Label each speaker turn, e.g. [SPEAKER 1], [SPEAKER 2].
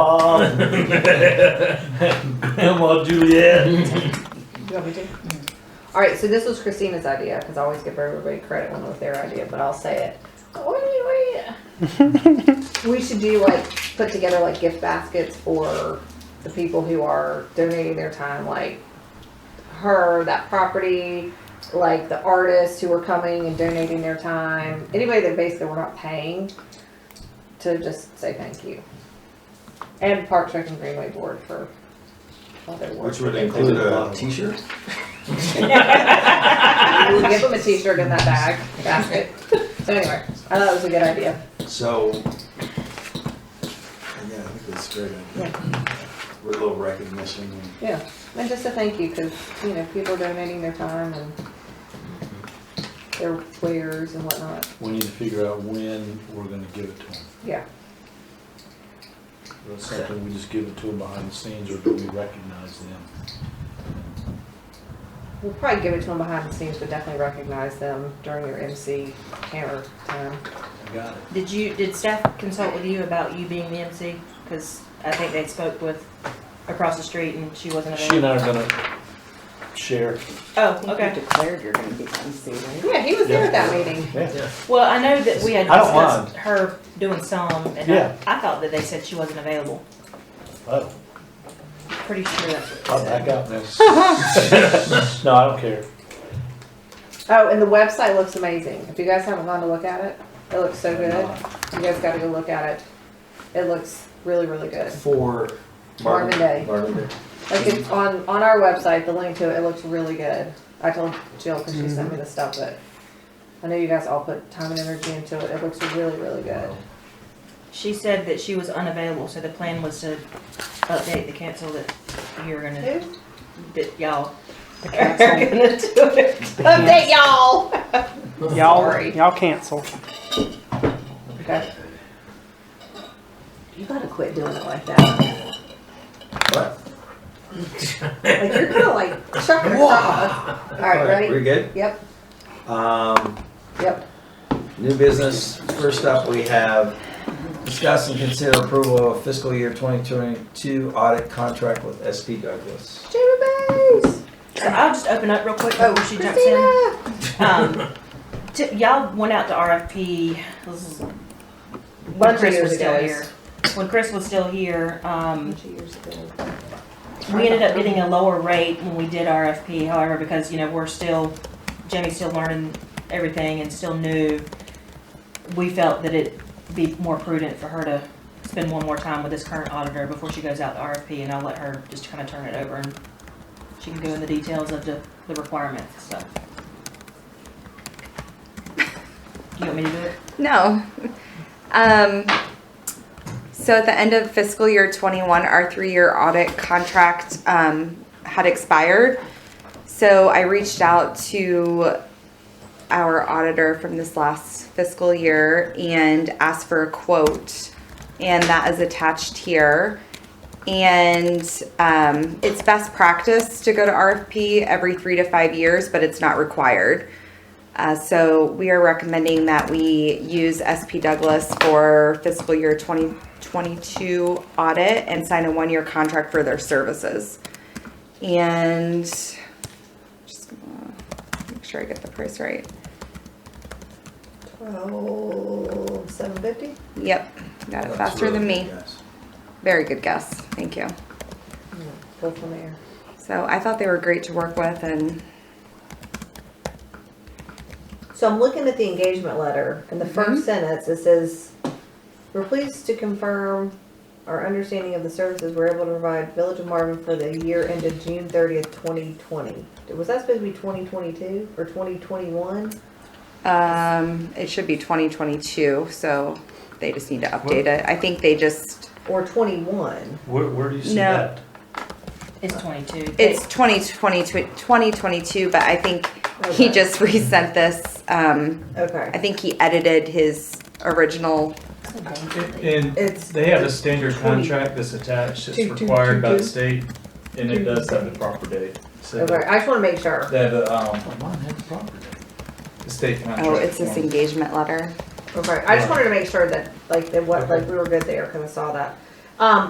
[SPEAKER 1] Bob. Come on, Juliet.
[SPEAKER 2] You want me to? All right, so this was Christina's idea because I always give everybody credit when it was their idea, but I'll say it. What do you- what do you- we should do like put together like gift baskets for the people who are donating their time, like her, that property, like the artists who are coming and donating their time, anybody that basically we're not paying to just say thank you. And Park Rec and Greenway Board for all their work.
[SPEAKER 3] Which would
[SPEAKER 2] that they do.
[SPEAKER 3] include a,
[SPEAKER 4] T-shirt?
[SPEAKER 2] We'll give them a t-shirt in that bag basket. So anyway, I thought it was a good idea.
[SPEAKER 3] so. Yeah, I think that's a great. idea. With a little recognition.
[SPEAKER 2] Yeah, and just a thank you because you know people are donating their time and their wares and whatnot.
[SPEAKER 1] We need to figure out when we're gonna give it to them.
[SPEAKER 2] Yeah,
[SPEAKER 1] That's something we just give it to them behind the scenes, or do we recognize them?
[SPEAKER 2] we'll probably give it to them behind the scenes, but definitely recognize them during your MC hammer time.
[SPEAKER 1] I got it.
[SPEAKER 5] Did you, did staff consult with you about you being the MC? Because I think they spoke with across the street and she wasn't
[SPEAKER 1] She and
[SPEAKER 5] available.
[SPEAKER 1] I are gonna share.
[SPEAKER 5] Oh,
[SPEAKER 6] think
[SPEAKER 5] okay.
[SPEAKER 6] you declared you're gonna be MC, right?
[SPEAKER 2] Yeah, he was there at that meeting.
[SPEAKER 5] Well, I know that we had
[SPEAKER 1] I don't
[SPEAKER 5] discussed her doing some and
[SPEAKER 1] Yeah.
[SPEAKER 5] I, I thought that they said she wasn't available.
[SPEAKER 1] Oh,
[SPEAKER 5] Pretty sure that's what
[SPEAKER 1] I'll
[SPEAKER 5] they
[SPEAKER 1] back
[SPEAKER 5] said.
[SPEAKER 1] out now. No, I don't care.
[SPEAKER 2] Oh, and the website looks amazing. If you guys haven't gone to look at it, it looks so good. You guys got to go look at it. It looks really, really good.
[SPEAKER 3] For.
[SPEAKER 2] Marvin Day.
[SPEAKER 3] Marvin Day.
[SPEAKER 2] Like it's on, on our website, the link to it, it looks really good. I told Jill because she sent me the stuff, but I know you guys all put time and energy into it. It looks really, really good.
[SPEAKER 5] She said that she was unavailable, so the plan was to update the council that you're gonna,
[SPEAKER 2] Who?
[SPEAKER 5] that y'all are
[SPEAKER 6] council.
[SPEAKER 5] gonna do it.
[SPEAKER 2] Update y'all.
[SPEAKER 7] Y'all,
[SPEAKER 2] Sorry.
[SPEAKER 7] y'all cancel.
[SPEAKER 2] Okay. You gotta quit doing it like that.
[SPEAKER 3] What?
[SPEAKER 2] Like you're kind of like chucking across. All right,
[SPEAKER 3] We're
[SPEAKER 2] ready?
[SPEAKER 3] good?
[SPEAKER 2] Yep,
[SPEAKER 3] Um,
[SPEAKER 2] yep.
[SPEAKER 3] New business, first up, we have discuss and consider approval of fiscal year 2022 audit contract with SP Douglas.
[SPEAKER 2] Jamie Bays.
[SPEAKER 5] So I'll just open up real quick
[SPEAKER 2] Oh,
[SPEAKER 5] before she jumps in.
[SPEAKER 2] Christina.
[SPEAKER 5] Um, t- y'all went out to RFP. This is-
[SPEAKER 2] Bunch
[SPEAKER 5] when
[SPEAKER 2] of
[SPEAKER 5] Chris
[SPEAKER 2] years
[SPEAKER 5] was still
[SPEAKER 2] ago.
[SPEAKER 5] here. When Chris was still here, um,
[SPEAKER 2] Bunch of years ago.
[SPEAKER 5] we ended up getting a lower rate when we did RFP. However, because you know we're still, Jamie's still learning everything and still new, we felt that it'd be more prudent for her to spend one more time with this current auditor before she goes out to RFP, and I'll let her just kind of turn it over and she can go in the details of the, the requirements. So, you want me to do it?
[SPEAKER 8] No. Um, so at the end of fiscal year 21, our three year audit contract um, had expired. So I reached out to our auditor from this last fiscal year and asked for a quote, and that is attached here. And um, it's best practice to go to RFP every three to five years, but it's not required. Uh, so we are recommending that we use SP Douglas for fiscal year 2022 audit and sign a one-year contract for their services. And just gonna make sure I get the price right.
[SPEAKER 2] Twelve Oh, seven fifty.
[SPEAKER 8] Yep, got it
[SPEAKER 3] That's
[SPEAKER 8] faster than
[SPEAKER 3] really
[SPEAKER 8] me.
[SPEAKER 3] good, guys.
[SPEAKER 8] Very good guess. Thank you.
[SPEAKER 2] Go from there.
[SPEAKER 8] So I thought they were great to work with and
[SPEAKER 2] So I'm looking at the engagement letter, and the 1st sentence it says, "We're pleased to confirm our understanding of the services we're able to provide Village of Marvin for the year ended June 30th, 2020." Was that supposed to be 2022 or 2021?
[SPEAKER 8] um, it should be 2022, so they just need to update it. I think they just,
[SPEAKER 2] Or 21.
[SPEAKER 1] Where, where do you see
[SPEAKER 8] No.
[SPEAKER 1] that?
[SPEAKER 5] It's twenty-two.
[SPEAKER 8] it's 2022, 2022, but I think he
[SPEAKER 2] Okay.
[SPEAKER 8] just resent this. Um, I
[SPEAKER 2] Okay.
[SPEAKER 8] think he edited his original.
[SPEAKER 9] And
[SPEAKER 2] It's
[SPEAKER 9] they have a standard
[SPEAKER 2] Twenty.
[SPEAKER 9] contract that's attached,
[SPEAKER 2] Two,
[SPEAKER 9] it's
[SPEAKER 2] two, two,
[SPEAKER 9] required by
[SPEAKER 2] two.
[SPEAKER 9] the state, and it does have the proper date. So
[SPEAKER 2] okay. I just want to make sure.
[SPEAKER 9] they have a, um,
[SPEAKER 4] Oh, mine had the property.
[SPEAKER 9] the state contract.
[SPEAKER 8] Oh, it's this
[SPEAKER 9] form.
[SPEAKER 8] engagement letter.
[SPEAKER 2] Okay. I just wanted to make sure that like that what like we were good there because I saw that. Um,